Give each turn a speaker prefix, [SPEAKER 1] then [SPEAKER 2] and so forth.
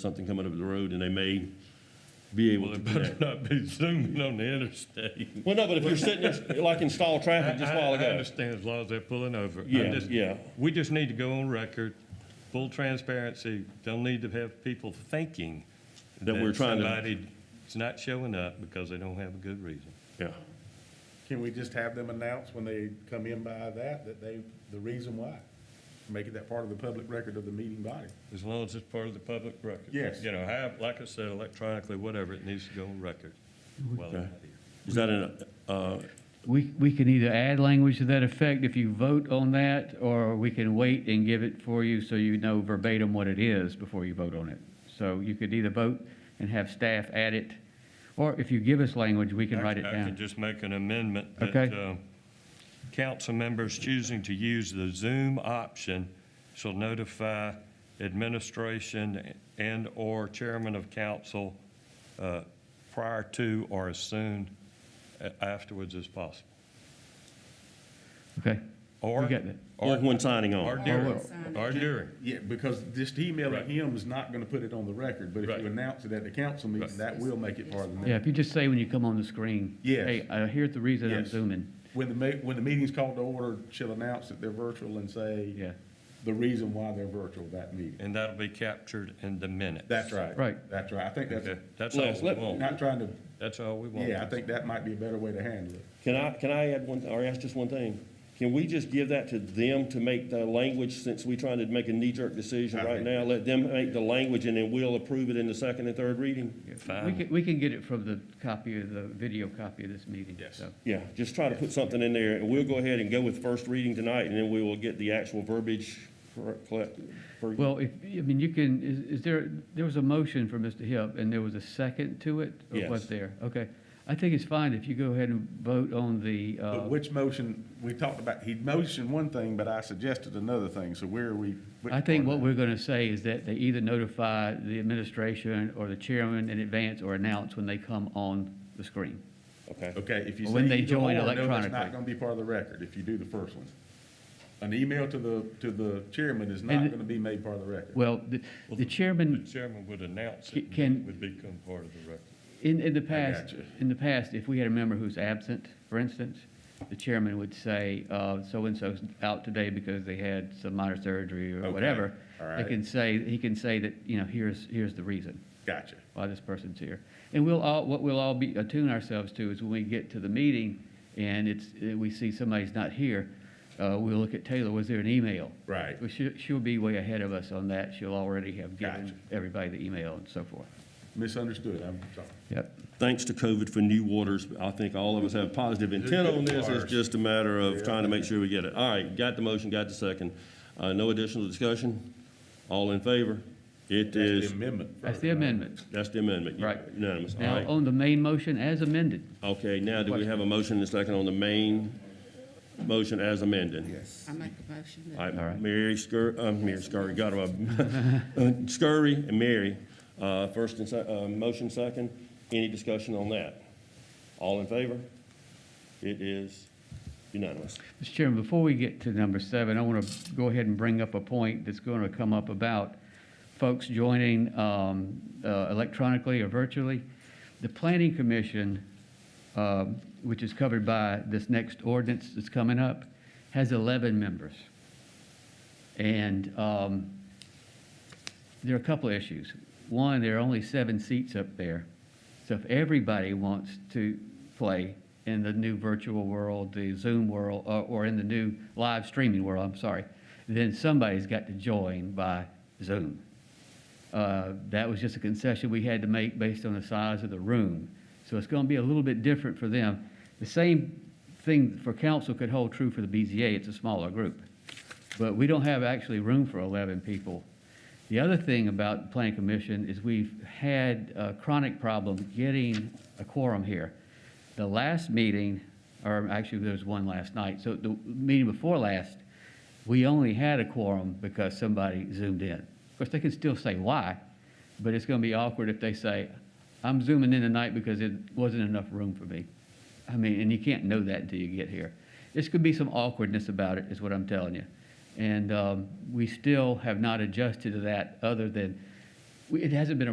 [SPEAKER 1] something coming up the road, and they may be able
[SPEAKER 2] Well,
[SPEAKER 1] to
[SPEAKER 2] it better
[SPEAKER 1] connect.
[SPEAKER 2] not be zooming on the interstate.
[SPEAKER 1] Well, no, but if you're sitting there, like in stall traffic just a while
[SPEAKER 2] I- I
[SPEAKER 1] ago.
[SPEAKER 2] understand as long as they're pulling over. I
[SPEAKER 1] Yeah,
[SPEAKER 2] just-
[SPEAKER 1] yeah.
[SPEAKER 2] We just need to go on record, full transparency, don't need to have people thinking.
[SPEAKER 1] That we're trying to-
[SPEAKER 2] Somebody's not showing up because they don't have a good reason.
[SPEAKER 1] Yeah.
[SPEAKER 3] Can we just have them announce when they come in by that, that they, the reason why? Make it that part of the public record of the meeting body.
[SPEAKER 2] As long as it's part of the public record.
[SPEAKER 3] Yes.
[SPEAKER 2] You know, have, like I said, electronically, whatever, it needs to go on record while they're
[SPEAKER 1] Okay.
[SPEAKER 2] here.
[SPEAKER 1] Is that an, uh,
[SPEAKER 4] We, we can either add language to that effect if you vote on that, or we can wait and give it for you so you know verbatim what it is before you vote on it. So you could either vote and have staff add it, or if you give us language, we can
[SPEAKER 2] I-
[SPEAKER 4] write it
[SPEAKER 2] I could
[SPEAKER 4] down.
[SPEAKER 2] just make an amendment that
[SPEAKER 4] Okay.
[SPEAKER 2] uh, council members choosing to use the Zoom option shall notify administration and/or chairman of council uh, prior to or as soon a- afterwards as possible.
[SPEAKER 4] Okay,
[SPEAKER 2] Or,
[SPEAKER 4] We got that.
[SPEAKER 1] or
[SPEAKER 2] or
[SPEAKER 1] when signing
[SPEAKER 2] or
[SPEAKER 1] on?
[SPEAKER 2] during,
[SPEAKER 4] well-
[SPEAKER 2] or during.
[SPEAKER 3] Yeah, because just emailing
[SPEAKER 2] Right.
[SPEAKER 3] him is not gonna put it on the record, but if
[SPEAKER 2] Right.
[SPEAKER 3] you announce it at the council meeting,
[SPEAKER 2] Right.
[SPEAKER 3] that will make it part of the.
[SPEAKER 4] yeah, if you just say when you come on the screen.
[SPEAKER 3] Yes.
[SPEAKER 4] Hey, uh, here's the reason I'm
[SPEAKER 3] Yes.
[SPEAKER 4] zooming.
[SPEAKER 3] When the ma, when the meeting's called to order, she'll announce that they're virtual and say.
[SPEAKER 4] Yeah.
[SPEAKER 3] The reason why they're virtual that meeting.
[SPEAKER 2] And that'll be captured in the minutes.
[SPEAKER 3] That's right.
[SPEAKER 4] Right.
[SPEAKER 3] That's right. I think that's,
[SPEAKER 2] Okay, That's all
[SPEAKER 1] Les,
[SPEAKER 2] we
[SPEAKER 1] let-
[SPEAKER 2] want.
[SPEAKER 3] not trying to,
[SPEAKER 2] That's all we want.
[SPEAKER 3] yeah, I think that might be a better way to handle it.
[SPEAKER 1] Can I, can I add one, or ask just one thing? Can we just give that to them to make the language, since we are trying to make a knee-jerk decision
[SPEAKER 3] I
[SPEAKER 1] right
[SPEAKER 3] think-
[SPEAKER 1] now? Let them make the language, and then we'll approve it in the second and third reading?
[SPEAKER 4] We
[SPEAKER 2] Fine.
[SPEAKER 4] can, we can get it from the copy of the video copy of this meeting,
[SPEAKER 3] Yes.
[SPEAKER 4] so.
[SPEAKER 1] Yeah, just try to put something in there, and we'll go ahead and go with first reading tonight, and then we will get the actual verbiage correct, correct- for-
[SPEAKER 4] Well, if, I mean, you can, is, is there, there was a motion for Mr. Hill, and there was a second to it? or
[SPEAKER 1] Yes.
[SPEAKER 4] Was there? Okay. I think it's fine if you go ahead and vote on the, uh,
[SPEAKER 3] But which motion, we talked about, he motioned one thing, but I suggested another thing, so where are we? which
[SPEAKER 4] I think
[SPEAKER 3] part
[SPEAKER 4] what
[SPEAKER 3] of
[SPEAKER 4] we're gonna say is that they either notify the administration or the chairman in advance or announce when they come on the screen.
[SPEAKER 1] okay?
[SPEAKER 3] that? Okay, if you say.
[SPEAKER 4] When they
[SPEAKER 3] either
[SPEAKER 4] join
[SPEAKER 3] or, no, that's
[SPEAKER 4] electronically.
[SPEAKER 3] not gonna be part of the record if you do the first one. An email to the, to the chairman is not
[SPEAKER 4] And-
[SPEAKER 3] gonna be made part of the record.
[SPEAKER 4] Well, the, the
[SPEAKER 2] The
[SPEAKER 4] chairman,
[SPEAKER 2] chairman would announce
[SPEAKER 4] Ca-
[SPEAKER 2] it. and
[SPEAKER 4] can-
[SPEAKER 2] it Would become part of the record.
[SPEAKER 4] in, in the past,
[SPEAKER 3] gotcha.
[SPEAKER 4] in the past, if we had a member who's absent, for instance, the chairman would say, uh, so-and-so's out today because they had some minor surgery or
[SPEAKER 3] Okay,
[SPEAKER 4] whatever.
[SPEAKER 3] all
[SPEAKER 4] They
[SPEAKER 3] right.
[SPEAKER 4] can say, he can say that, you know, here's, here's the reason.
[SPEAKER 3] Gotcha.
[SPEAKER 4] why this person's here. And we'll all, what we'll all be, attune ourselves to is when we get to the meeting and it's, eh, we see somebody's not here, uh, we'll look at Taylor, was there an email?
[SPEAKER 3] Right.
[SPEAKER 4] Well, she, she'll be way ahead of us on that. She'll already have
[SPEAKER 3] Gotcha.
[SPEAKER 4] given everybody the email and so forth.
[SPEAKER 3] Misunderstood, I'm sorry.
[SPEAKER 4] Yep.
[SPEAKER 1] thanks to COVID for new waters, I think all of us have positive intent on this. It's just a matter of trying to make sure we get it. All right, got the motion, got the second. Uh, no additional discussion? All in favor? It
[SPEAKER 3] That's
[SPEAKER 1] is,
[SPEAKER 3] the amendment.
[SPEAKER 4] That's
[SPEAKER 3] first,
[SPEAKER 4] the
[SPEAKER 3] right?
[SPEAKER 4] amendment.
[SPEAKER 1] that's the amendment.
[SPEAKER 4] Right.
[SPEAKER 1] Unanimous, all
[SPEAKER 4] Now,
[SPEAKER 1] right.
[SPEAKER 4] on the main motion as amended,
[SPEAKER 1] Okay, now do we have a motion and a second on the main motion as amended? Yes.
[SPEAKER 5] I make a motion
[SPEAKER 1] All
[SPEAKER 5] that
[SPEAKER 4] All
[SPEAKER 1] right,
[SPEAKER 4] right.
[SPEAKER 1] Mary Scur, uh, Mary Scurry, got it. Scurry and Mary, uh, first and se, uh, motion second. Any discussion on that? All in favor? It is unanimous.
[SPEAKER 4] Mr. Chairman, before we get to number seven, I want to go ahead and bring up a point that's going to come up about folks joining um, uh, electronically or virtually. The Planning Commission, um, which is covered by this next ordinance that's coming up, has 11 members. And um, there are a couple of issues. One, there are only seven seats up there. So if everybody wants to play in the new virtual world, the Zoom world, or, or in the new live streaming world, I'm sorry, then somebody's got to join by Zoom. Uh, that was just a concession we had to make based on the size of the room. So it's going to be a little bit different for them. The same thing for council could hold true for the BZA. It's a smaller group. But we don't have actually room for 11 people. The other thing about the Planning Commission is we've had a chronic problem getting a quorum here. The last meeting, or actually there was one last night, so the meeting before last, we only had a quorum because somebody zoomed in. Of course, they can still say why, but it's going to be awkward if they say, I'm zooming in tonight because it wasn't enough room for me. I mean, and you can't know that until you get here. This could be some awkwardness about it, is what I'm telling you. And um, we still have not adjusted to that, other than we- it hasn't been a